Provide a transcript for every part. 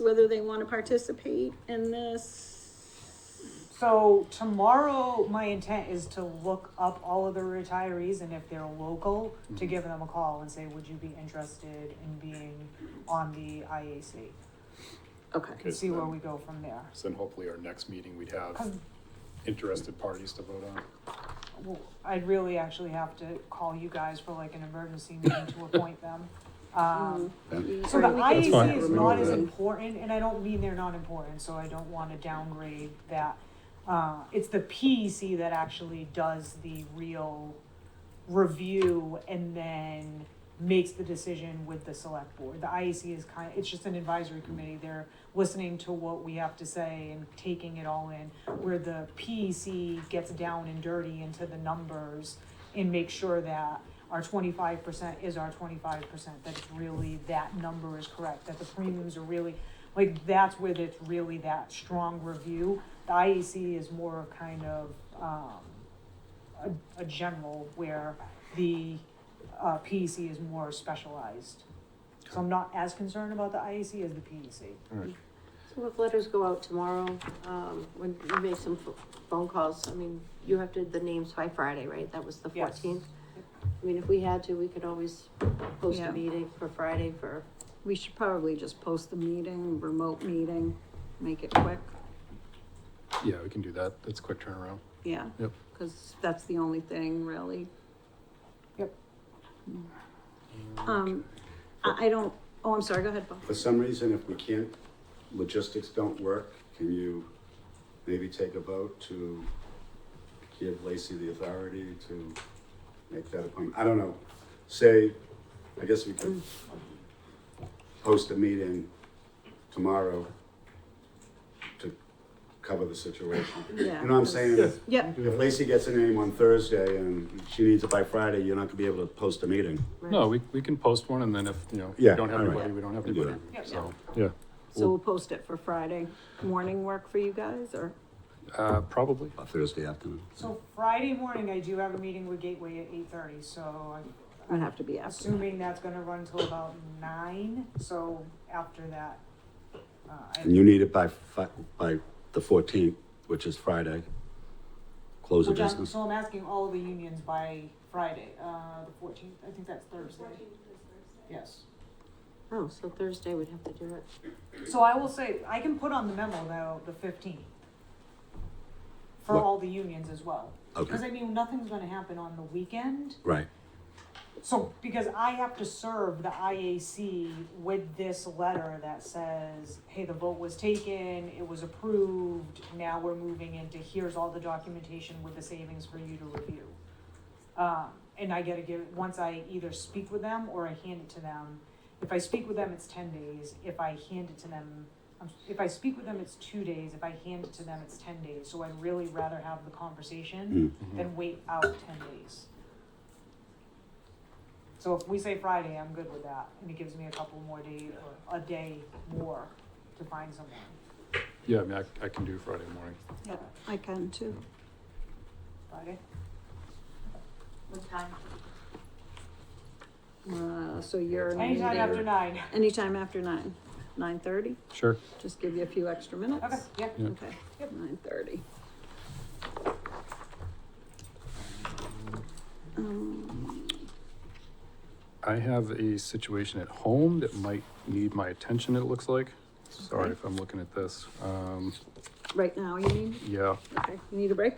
whether they want to participate in this. So tomorrow, my intent is to look up all of the retirees and if they're local, to Mhm. give them a call and say, would you be interested in being on the IAC? Okay. And Okay, see so where then- we go from there. So then hopefully our next meeting, we'd have 'Cause, interested parties to vote on. well, I'd really actually have to call you guys for like an emergency meeting to appoint them. Um, so the Or we could- E That's fine. IAC is We not will as then. important, and I don't mean they're not important, so I don't wanna downgrade that. Uh, it's the PEC that actually does the real review and then makes the decision with the select board. The IAC is kind, it's just an advisory committee, they're listening to what we have to say and taking it all in. Where the PEC gets down and dirty into the numbers and make sure that our twenty-five percent is our twenty-five percent, that it's really, that number is correct, that the premiums are really, like, that's where it's really that strong review. The IEC is more of kind of, um, a, a general where the, uh, PEC is more specialized. So I'm not as concerned about the IEC as the E PEC. So if letters go out tomorrow, um, when you make some pho- phone calls, I mean, you have to, the names by Friday, right? That was the Yes. fourteenth? I mean, if we had to, we could always post Yeah. a meeting for Friday for, We should probably just post the meeting, remote meeting, make it quick. Yeah, we can do that. That's a quick turnaround. Yeah. Yep. Cause that's the only thing really. Yep. Um, I, I don't, oh, I'm sorry, go ahead, Bob. For some reason, if we can't, logistics don't work, can you maybe take a vote to give Lacey the authority to make that appointment? I don't know. Say, I guess we could host a meeting tomorrow to cover the situation. You Yeah. know what I'm saying? If Yep, if Lacey gets a name on Thursday and she needs it by Friday, you're not gonna be able to post a meeting. right? No, we, we can post one and then if, you know, we Yeah, don't have all right. anybody, we don't have We can do anybody. that. So, yeah, so we'll post it for Friday morning work for you guys or? uh, probably. Thursday afternoon. So Friday morning, I do have a meeting with Gateway at eight thirty, so I'm I'd have to be after. assuming that's gonna run till about nine, so after that. Uh, And I, you need it by fi- by the fourteenth, which is Friday. Close of which I'm- business. so I'm asking all the unions by Friday, uh, the fourteenth, I think that's Thursday. Yes. Oh, so Thursday we'd have to do it. So I will say, I can put on the memo though, the fifteenth. For What? all the unions as well. Cause Okay, I mean, nothing's gonna happen on the weekend. right. So, because I have to serve the IAC with this letter that says, hey, the vote was taken, it was approved, now we're moving into, here's all the documentation with the savings for you to review. Um, and I gotta give, once I either speak with them or I hand it to them, if I speak with them, it's ten days, if I hand it to them, um, if I speak with them, it's two days, if I hand it to them, it's ten days, so I'd really rather have the Mm. conversation Mm-hmm. than wait out ten days. So if we say Friday, I'm good with that, and it gives me a couple more days, or a day more to find someone. Yeah, I mean, I, I can do Friday morning. Yep, I can too. Friday? What time? Uh, so you're. Anytime after nine. Anytime after nine, nine thirty, Sure. just give you a few extra minutes. Okay, yeah. Yeah. Okay, Yep. nine thirty. Um, I have a situation at home that might need my attention, it looks like. Sorry Okay. if I'm looking at this. Um, right now, you need, yeah, okay, you need a break?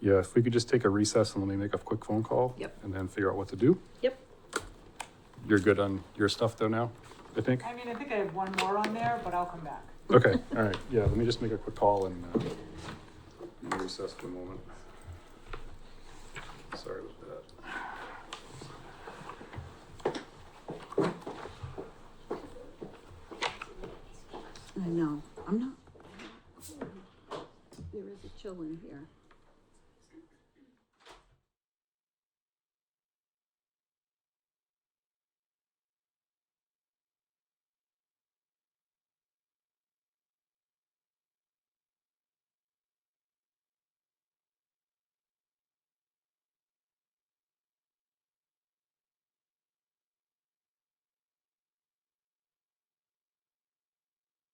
yeah, if we could just take a recess and let me make a quick phone call. Yep. And then figure out what to do. Yep. You're good on your stuff though now, I think? I mean, I think I have one more on there, but I'll come back. Okay, all right, yeah, let me just make a quick call and uh, we'll recess for a moment. Sorry about that. I know, I'm not. There is a chill in here.